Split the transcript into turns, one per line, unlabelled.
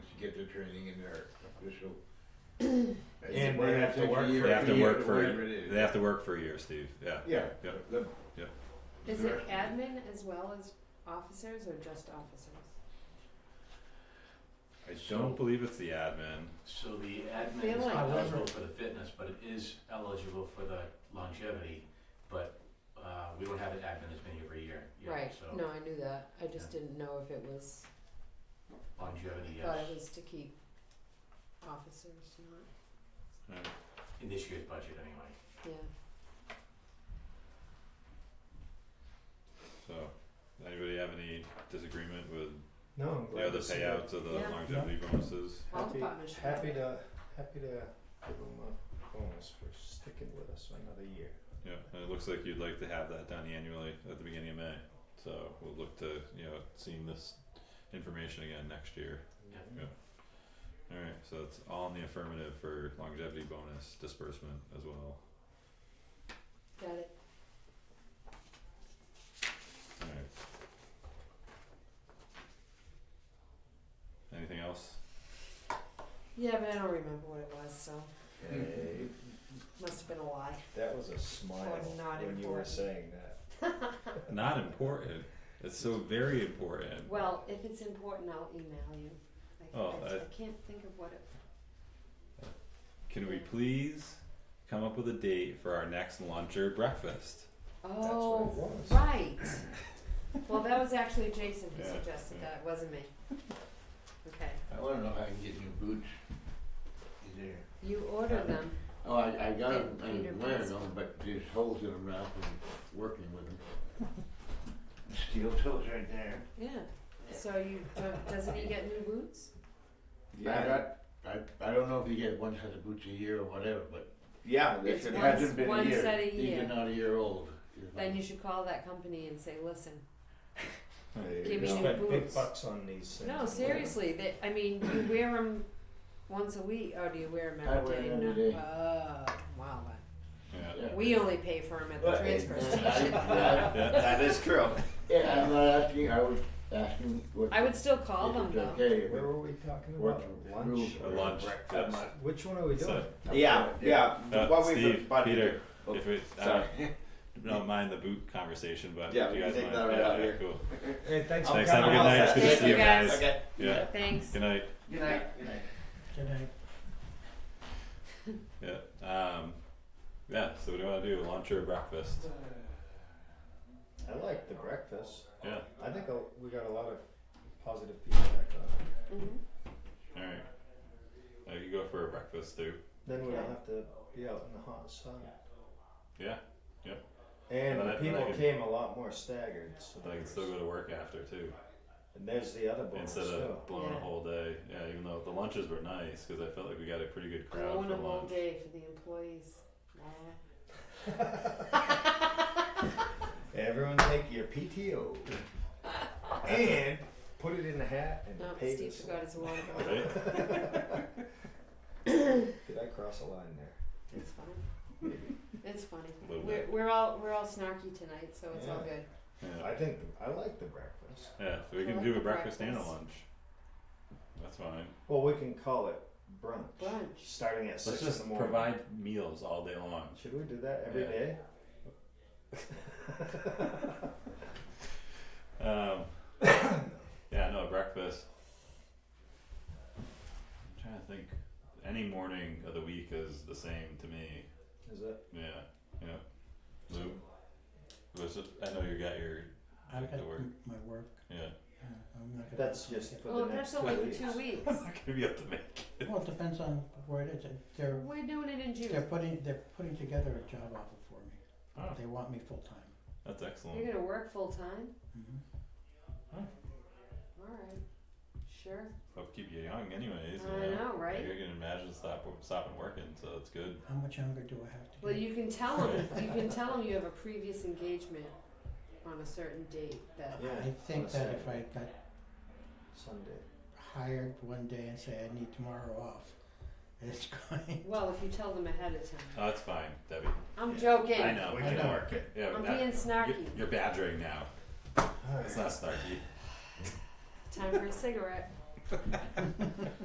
get the training in their official.
And they have to work for
year,
They
it.
have to work
whatever
for,
it is.
they have to work for a year, Steve, yeah.
Yeah.
Yeah.
the-
Yeah.
Is it admin as well as officers or just officers?
I
So-
don't believe it's the admin,
So the
I feel
admin is
like-
not eligible for the fitness, but it is eligible for the longevity, but, uh, we don't have an admin as many every year, yeah,
Right,
so
no, I knew that, I just didn't know if it was,
longevity,
thought
yes,
it was to keep officers, not,
in this year's budget anyway.
yeah.
so, anybody have any disagreement with
No, I'm
the
glad
other
to see it.
payouts of the
Yeah.
longevity bonuses?
Health
Happy,
department should
happy
have it.
to, happy to give them a bonus for sticking with us for another year.
Yeah, and it looks like you'd like to have that done annually at the beginning of May, so we'll look to, you know, seeing this information again next year. Yeah. Alright, so it's all in the affirmative for longevity bonus disbursement as well.
Got it,
Alright. Anything else?
yeah, but I don't remember what it was, so,
Hey,
must've been a lie.
that was a smile
Or not
when you were
important.
saying that.
Not important. It's so very important.
Well, if it's important, I'll email you, I
Oh,
I
I-
I can't think of what it,
Can we please come up with a date for our next lunch or breakfast?
That's what it
oh,
was.
right. Well, that was actually Jason who
Yeah,
suggested
yeah.
that, it wasn't me. Okay,
I wanna know if I can get new boots. Is there?
you order them,
Oh, I, I got them, I
Peter
didn't wear
Pan.
them, but there's holes in them now from working with them. Steel toes right there.
yeah, so you, don't- doesn't he get new boots?
I got, I, I don't know if you get one set of boots a year or whatever, but
Yeah,
they It's
it
should- one-
hasn't been a
one
year.
set a
These
year.
are not a year old. If
Then
I'm-
you should call that company and say, listen,
There
Give
you
me
We
go.
new
spent big
boots.
bucks on these things.
No, seriously, they, I mean, you wear them once a week, or do you wear them
I
every
wear
day?
'em every
No.
day.
Oh, wow,
Yeah.
Yeah.
we only pay for them at the
But-
transfer
and I-
station.
yeah,
That is true.
Yeah, I'm not asking, I was asking what.
I would still call
if
them
it's
though.
Okay,
Where
but
were we talking
what
about?
the
Lunch?
rules
A
were.
lunch, yes.
Which one are we doing?
So-
Yeah, yeah.
Uh,
what we've
Steve,
been-
Peter,
Oh,
if we, I
sorry.
don't, don't mind the boot conversation, but
Yeah,
do
we
you
can
guys
take
mind?
that right
yeah,
out
yeah,
here.
cool.
Hey, thanks for
Thanks. Have a
coming.
good night. It's good to
Thank
see
you,
you guys.
guys.
Okay.
Yeah.
Thanks.
Good night.
Good night, good night.
Yeah. Um, yeah. So what do you want to do? Lunch or breakfast?
I like the breakfast.
Yeah.
I think uh, we got a lot of positive feedback uh, on it.
Mhm.
All right. Uh, you go for a breakfast too.
Then we don't
Okay.
have to be out in the hot sun.
Yeah.
And
But
the
I- but I
people
could-
came a lot more staggered. So
But I can still go to work after too,
and there's the other bonus
instead
too.
of blowing
Yeah.
a whole day. Yeah. Even though the lunches were nice, because I felt like we got a pretty good crowd
Going
for
a whole
lunch.
day for the employees. Nah.
Everyone take your PTO and put it in the hat and
No,
pay
Steve
this.
forgot his wallet.
Right.
Did I cross a line there?
It's funny. It's funny.
A little
We're,
bit.
we're all, we're all snarky tonight, so it's all good.
Yeah.
I think I like the breakfast.
Yeah. So we
I
can
like
do a
the
breakfast, and a
breakfast.
lunch. That's fine.
Well, we can call it brunch.
Brunch.
Starting at
Let's
six in
just
the morning.
provide meals all day long.
Should we do that every
Yeah.
day?
Um, yeah, no breakfast. I'm trying to think. Any morning of the week is the same to me.
Is it?
Yeah, yeah. Lou, was it, I know you got your
I've
back to
got
work.
my work.
Yeah,
uh, I'm not gonna.
That's just for
Well,
the next
that's
two
only for
weeks.
two weeks.
I'm not gonna be able to make.
Well, it depends on where it is. If They're
We're doing it in
they're
June.
putting they're putting together a job offer for me.
Oh,
They want me full time.
that's excellent.
You're gonna work full time?
Mm-hmm.
Alright, sure.
I'll keep you young, anyways.
I
you
know, right?
You're gonna imagine stop stopping working, so it's good.
How much younger do I have to
Well,
get?
you can tell them, you can tell them you have a previous engagement on a certain date that,
Yeah.
I think
on a
that if
Saturday,
I got
Sunday.
hired one day and say I need tomorrow off, it's going.
well, if you tell them ahead of time.
Oh, that's fine, Debbie.
I'm joking.
I know.
We can
work it. Yeah,
I'm
that-
being snarky.
You're, you're badgering now.
All right.
It's not snarky.
Time for a cigarette.